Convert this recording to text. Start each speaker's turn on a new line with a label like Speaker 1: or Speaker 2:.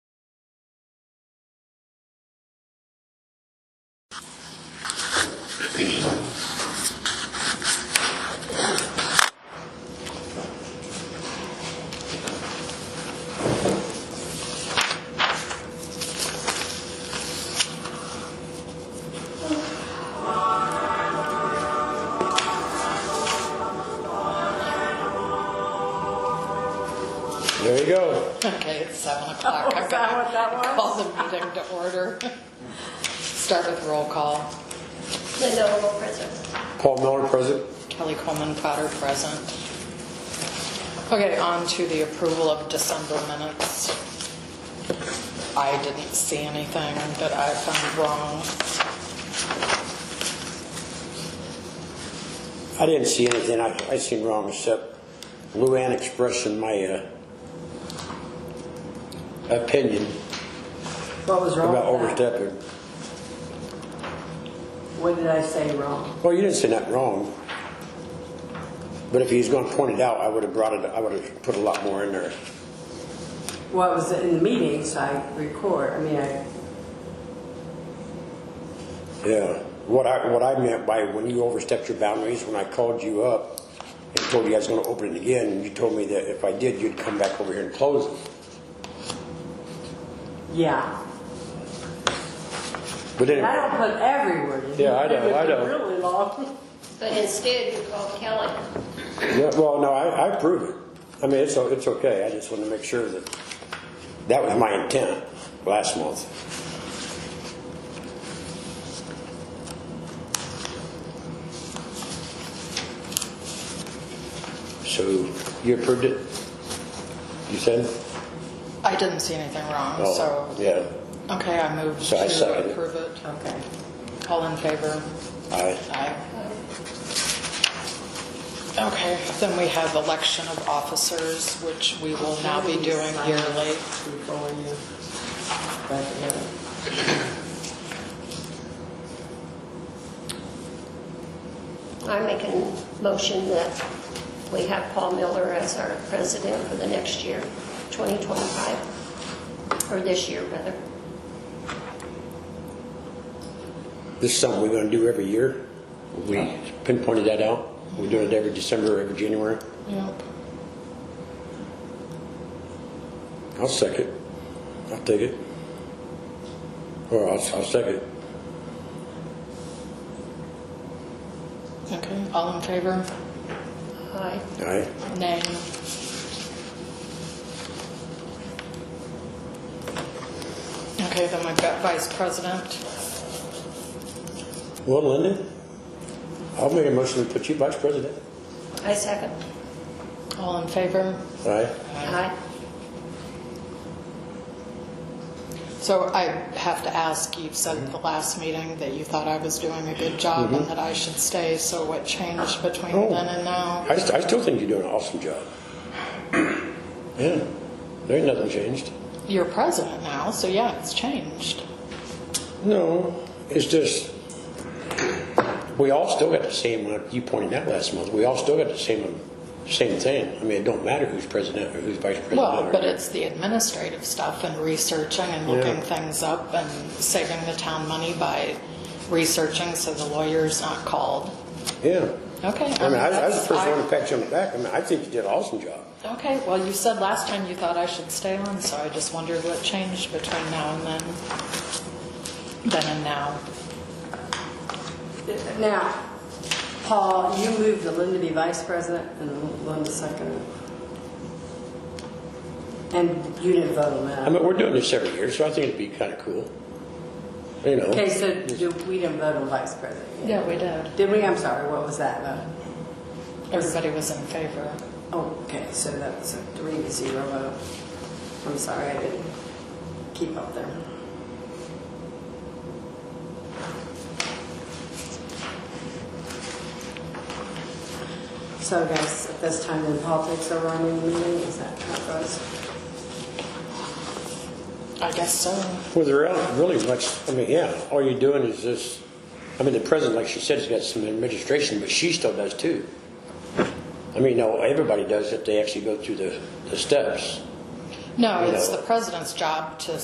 Speaker 1: Okay, it's seven o'clock.
Speaker 2: Oh, is that what that was?
Speaker 1: I'm gonna Call the meeting to order. Start with roll call.
Speaker 3: Linda Oval present.
Speaker 4: Paul Miller, present.
Speaker 1: Kelly Coleman Potter present. Okay, on to the approval of December minutes. I didn't see anything that I found wrong.
Speaker 4: I didn't see anything I, I seen wrong except Luann expressing my, uh, opinion
Speaker 2: What was wrong
Speaker 4: about
Speaker 2: with that?
Speaker 4: overstepping.
Speaker 2: What did I say wrong?
Speaker 4: Well, you didn't say nothing wrong. But if he's gonna point it out, I would've brought it, I would've put a lot more in there.
Speaker 2: Well, it was in the meetings, I record, I mean, I,
Speaker 4: Yeah. What I, what I meant by when you overstepped your boundaries, when I called you up and told you I was gonna open it again, you told me that if I did, you'd come back over here and close it.
Speaker 2: yeah.
Speaker 4: But
Speaker 2: And I don't
Speaker 4: anyway,
Speaker 2: put every word in.
Speaker 4: Yeah, I know, I know.
Speaker 2: Really long.
Speaker 3: But instead, you called Kelly.
Speaker 4: yeah, well, no, I, I approve it. I mean, it's, o- it's okay. I just wanted to make sure that that was my intent last month. So you approved it? You said?
Speaker 1: I didn't see anything wrong,
Speaker 4: Oh,
Speaker 1: so,
Speaker 4: Yeah.
Speaker 1: okay, I move
Speaker 4: So I second
Speaker 1: to
Speaker 4: it.
Speaker 1: approve it.
Speaker 2: Okay.
Speaker 1: All in favor?
Speaker 4: Aye.
Speaker 1: Aye. Okay, then we have election of officers, which we will now be doing yearly.
Speaker 2: Before you, but, yeah.
Speaker 3: I'm making motion that we have Paul Miller as our president for the next year, 2025, or this year, rather.
Speaker 4: This is something we're gonna do every year. We pinpointed that out. We're doing it every December, every January.
Speaker 1: Yep.
Speaker 4: I'll second. I'll take it. Or I'll, I'll second.
Speaker 1: Okay, all in favor?
Speaker 3: Aye.
Speaker 4: Aye.
Speaker 1: Nay. Okay, then we've got vice president.
Speaker 4: Well, Linda, I'll make a motion to put you vice president.
Speaker 3: I second.
Speaker 1: All in favor?
Speaker 4: Aye.
Speaker 3: Aye.
Speaker 1: So I have to ask, you said at the last meeting that you thought I was doing a good job and that I should stay, so what changed between
Speaker 4: Oh.
Speaker 1: then and now?
Speaker 4: I, st- I still think you're doing an awesome job. Yeah, there ain't nothing changed.
Speaker 1: You're president now, so yeah, it's changed.
Speaker 4: No, it's just, we all still got the same, like you pointed out last month, we all still got the same, same thing. I mean, it don't matter who's president or who's vice president.
Speaker 1: Well,
Speaker 4: or-
Speaker 1: but it's the administrative stuff and researching and looking things up and saving the town money by researching so the lawyer's not called.
Speaker 4: Yeah.
Speaker 1: Okay.
Speaker 4: I mean, I I was
Speaker 1: that's-
Speaker 4: the first
Speaker 1: I-
Speaker 4: one to pat you on the back. I mean, I think you did an awesome job.
Speaker 1: Okay, well, you said last time you thought I should stay on, so I just wondered what changed between now and then, then and now.
Speaker 2: Now, Paul, you moved to Linda to be vice president and Linda second. And you didn't vote on
Speaker 4: I
Speaker 2: that.
Speaker 4: mean, we're doing this every year, so I think it'd be kind of cool. You know.
Speaker 2: Okay, so do- we didn't vote on vice president. yet.
Speaker 1: Yeah, we did.
Speaker 2: Did we? I'm sorry, what was that vote?
Speaker 1: Everybody was in favor.
Speaker 2: Oh, Okay, so that was a three to zero vote. I'm sorry, I didn't keep up there. So guys, at this time in politics are running the meeting, is that how it goes?
Speaker 1: I guess so.
Speaker 4: Well, there aren't really much, I mean, yeah, all you're doing is this, I mean, the president, like she said, has got some administration, but she still does too. I mean, no, everybody does if they actually go through the, the steps.
Speaker 1: No, it's the president's job to